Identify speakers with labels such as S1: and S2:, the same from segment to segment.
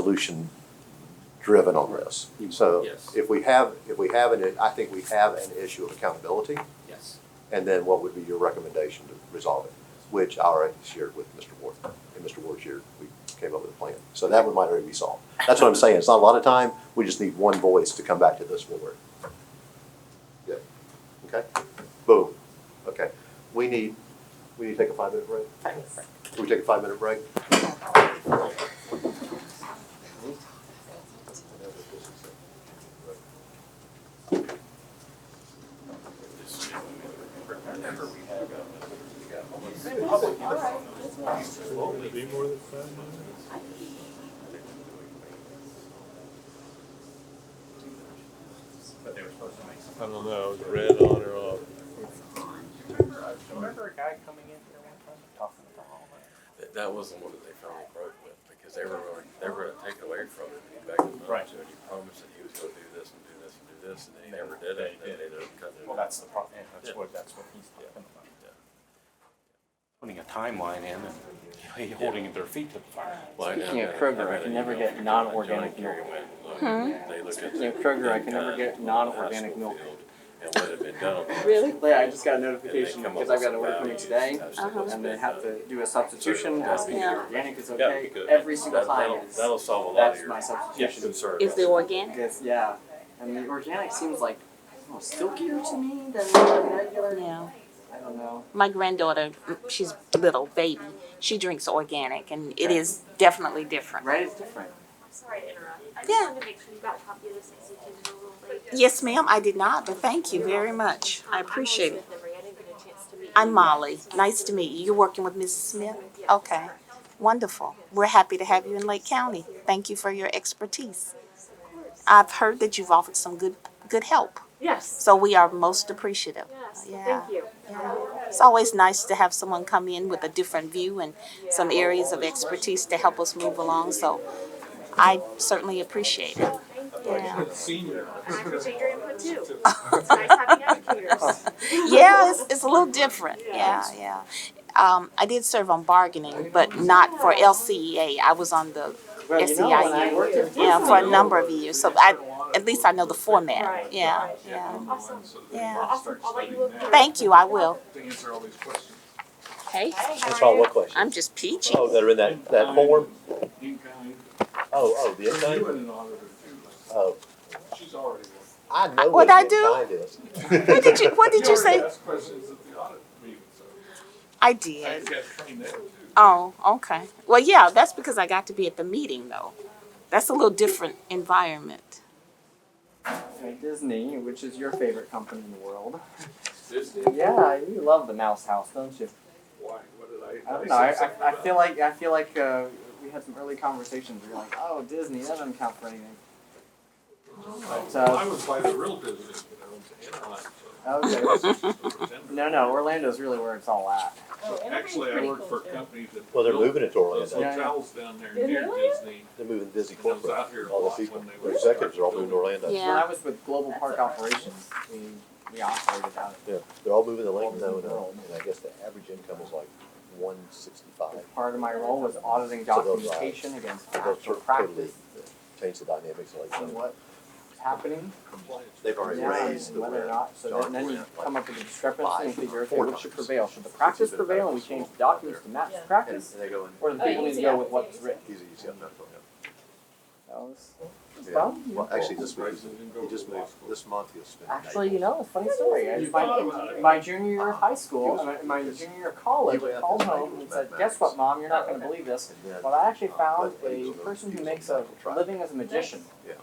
S1: solution driven on this. So
S2: Yes.
S1: if we have, if we have an, I think we have an issue of accountability,
S2: Yes.
S1: and then what would be your recommendation to resolve it? Which I already shared with Mr. Ward, and Mr. Ward shared, we came up with a plan. So that one might already be solved. That's what I'm saying, it's not a lot of time, we just need one voice to come back to this board. Yeah, okay, boom, okay. We need, we need to take a five-minute break? Can we take a five-minute break?
S2: But they were supposed to make some.
S3: I don't know, is it red on or off?
S2: Remember, uh, remember a guy coming in here one time talking about all that?
S4: That, that wasn't what they finally broke with because they were going, they were going to take it away from him. and He backed him
S2: Right.
S4: up to it. He promised that he was going to do this and do this and do this, and then he never did
S2: They
S4: it. and
S2: did.
S4: then they didn't cut it.
S2: Well, that's the problem, yeah, that's
S4: Yeah.
S2: what, that's what he's talking about.
S4: Yeah.
S2: Putting a timeline in and holding their feet to the fire.
S4: Well, I know
S5: Speaking of
S4: that-
S5: Kroger,
S4: know
S5: I can
S4: that,
S5: never
S4: you know,
S5: get
S4: John
S5: non-organic
S4: Kerry
S5: milk.
S4: went and looked, They looked at
S5: Speaking of
S4: the-
S5: Kroger, I
S4: the
S5: can never
S4: guns
S5: get
S4: on the
S5: non-organic
S4: hustle
S5: milk.
S4: field And what had been done. on the
S5: Really? Yeah, I just got a
S4: And they
S5: notification
S4: come up
S5: because I've
S4: with
S5: got to
S4: some
S5: work for me
S4: values
S5: today,
S4: as to
S6: Uh-huh.
S4: what's
S5: and they
S4: been
S5: have
S4: done.
S5: to do a substitution, asking if
S6: Yeah.
S5: organic is
S4: That would be
S5: okay.
S4: good.
S5: Every single
S4: That- that'll-
S5: time, it's-
S4: That'll solve a lot of
S5: that's
S4: your
S5: my
S2: Yes,
S5: substitution.
S4: concerns.
S6: Is the organic?
S5: Yes, yeah, and the organic seems like oh, silkier to me than the regular.
S6: Yeah.
S5: I don't know.
S6: My granddaughter, she's little baby. She drinks organic, and it is definitely different.
S5: Right, it's different.
S7: I'm sorry to interrupt. I just
S6: Yeah.
S7: wanted to make sure you got a copy of this since you came in a little late.
S6: Yes, ma'am. I did not, but thank you very much.
S7: Um,
S6: I appreciate
S7: I'm
S6: it.
S7: Molly Smith Emery. I didn't get a chance to meet you.
S6: I'm Molly. Nice to meet you. You're working with Mrs. Smith. Okay, wonderful. We're happy to have you in Lake County. Thank you for your expertise. I've heard that you've offered some good good help,
S7: Yes.
S6: so we are most appreciative.
S7: Yes.
S6: Yeah.
S7: Thank you.
S6: Yeah. It's always nice to have someone come in with a different view and some areas of expertise to help us move along, so I certainly appreciate it. Yeah,
S7: And I appreciate your input too. It's nice having educators.
S6: yeah it's, it's a little different, yeah, yeah. Um, I did serve on bargaining, but not for LCEA, I was on the,
S5: Well, you know, when I
S6: SEIU.
S5: worked at
S6: yeah, for a
S5: Disney,
S6: number of years, so I, at least I know the format,
S7: Right,
S6: yeah,
S7: right.
S6: yeah,
S7: Awesome.
S6: yeah.
S7: Awesome. I'll let you look. through it.
S6: Thank you, I will.
S8: to answer all these questions.
S6: Hey,
S7: Hey, how
S1: That's
S7: are
S1: all,
S7: you?
S1: what question?
S6: I'm just peachy.
S1: Oh, that are in that, that form?
S8: Incoming.
S1: Oh, oh, the
S8: You
S1: inside?
S8: and an auditor too. like,
S1: Oh,
S8: She's already. one.
S1: I know what
S6: What'd I
S1: the
S6: do?
S1: inside is.
S6: What did you, what did you
S8: already
S6: say?
S8: asked questions at the audit meeting, so.
S6: I
S8: I
S6: did.
S8: got trained there too.
S6: Oh, okay. Well, yeah, that's because I got to be at the meeting, though. That's a little different environment.
S5: at Disney, which is your favorite company in the world.
S8: Disney,
S5: Yeah, you love the Mouse House, don't you?
S8: why, what did I?
S5: I don't know. I, I, I feel like I feel like uh, we had some early conversations. We were like, "Oh, Disney, that doesn't count for anything."
S8: like.
S5: uh,
S8: I was by the real Disney, you know, in Anaheim,
S5: Okay.
S8: so. Denver.
S5: no, no, Orlando's really where it's all at.
S9: Oh,
S8: Actually, I work for a company that.
S1: Well, they're
S8: built
S1: moving it to
S8: Those
S1: Orlando.
S5: Yeah.
S8: hotels down there
S7: Did
S8: near
S7: they?
S8: Disney,
S1: They're moving Disney
S8: and I was
S1: corporate.
S8: out here a
S1: All
S8: lot
S1: the people,
S8: when they
S1: the
S8: were.
S1: executives are all moving to Orlando.
S6: Yeah.
S5: When I was with Global Park Operations, we we operated out
S1: Yeah, they're all moving to Orlando, and, uh, and I guess the average income is like one sixty-five.
S5: of. Part of my role was auditing documentation against
S1: They'll
S5: actual
S1: totally
S5: practice
S1: change the dynamics uh, of Lake
S5: and
S1: County.
S5: what was happening.
S1: They've already
S5: Yeah,
S1: raised
S5: and
S1: the
S5: whether or
S1: rent.
S5: not, so
S1: John
S5: then, then you
S1: Grant, like,
S5: come up with a discrepancy
S1: five,
S5: and figure, okay,
S1: four
S5: what should
S1: times.
S5: prevail? Should the practice
S1: It's even
S5: prevail and we
S1: better.
S5: change the documents to match the
S1: And
S5: practice?
S1: they go in,
S5: Or do the
S7: Oh,
S5: people need to
S7: easy,
S5: go
S7: yeah.
S5: with what's written?
S1: he's a UCF medical,
S5: That was, that was
S1: yeah.
S5: fun.
S1: Well, actually, this week,
S8: Prices
S1: he's-
S8: didn't go
S1: he just
S8: to law
S1: moved,
S8: school.
S1: this month he'll spend.
S5: Actually, you know, a funny story. I-
S8: You thought about
S5: My,
S8: it.
S5: my junior year of high
S1: He
S5: school,
S1: was-
S5: my, my junior year of college,
S1: He was-
S5: I called home and said, guess what, mom, you're not gonna believe this,
S1: And then-
S5: but I actually found a person who makes a living as a magician.
S1: Yeah.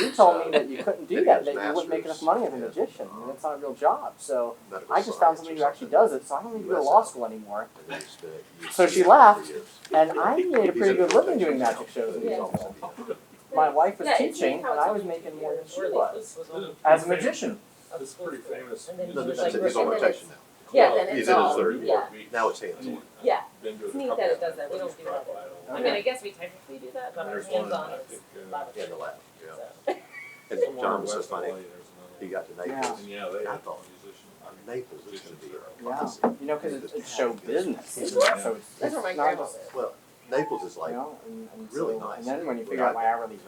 S5: You told me that you couldn't do that, that you wouldn't make enough money as a
S1: Yeah. Uh-huh.
S5: magician, and it's not a real job, so
S1: medical
S5: I just
S1: science
S5: found
S1: or
S5: somebody who actually
S1: something.
S5: does it, so I don't need to go to law school anymore.
S1: And then he's spent at
S5: So she
S1: UCF for
S5: left,
S1: years.
S5: And I made a
S1: He's
S5: pretty
S1: in a
S5: good living
S1: rotation
S5: doing
S1: now.
S5: magic shows and
S1: He's
S5: stuff.
S1: also-
S5: My wife was
S9: Yeah, it's
S5: teaching, and
S9: how
S5: I
S9: it's
S5: was
S9: like
S5: making
S9: two
S5: more than
S9: years,
S5: she
S9: really,
S5: was,
S9: this was
S8: This
S9: on-
S8: is
S5: as a
S8: pretty famous-
S5: magician.
S8: This is pretty famous.
S9: And then
S1: No,
S9: he's
S1: that's it,
S9: like,
S1: he's on
S9: and then
S1: rotation now.
S9: Yeah, then
S1: He's
S9: it's
S1: in his
S9: all-
S1: third
S9: yeah.
S1: Now it's hands-on.
S9: Yeah.
S8: Been doing
S9: It's
S8: a
S9: neat
S8: couple
S9: that it
S8: of
S9: does that. We
S8: things,
S9: don't do that. I mean, I
S5: Okay.
S9: guess we technically do that, but our
S8: There's one,
S9: hands on
S8: I
S9: is
S8: think, uh,
S1: In the
S9: laboratory.
S1: lab, yeah.
S9: So.
S1: And
S8: somewhere
S1: John
S8: in
S1: was so
S8: West
S1: funny,
S8: LA, there's another-
S1: he got to
S5: Yeah.
S1: Naples,
S8: And yeah, they
S1: I
S8: had
S1: thought,
S8: musicians. I mean,
S1: Naples is gonna be. a
S5: Yeah,
S1: fucking-
S5: you know, because it's, it's show business,
S1: Yeah.
S5: so it's,
S9: That's where my
S5: it's not
S9: grandma
S5: just
S9: lives.
S1: Well, Naples is
S5: you
S1: like
S5: know, and, and
S1: really
S5: so-
S1: nice.
S5: And then when you
S1: We're
S5: figure out
S1: not-
S5: my hourly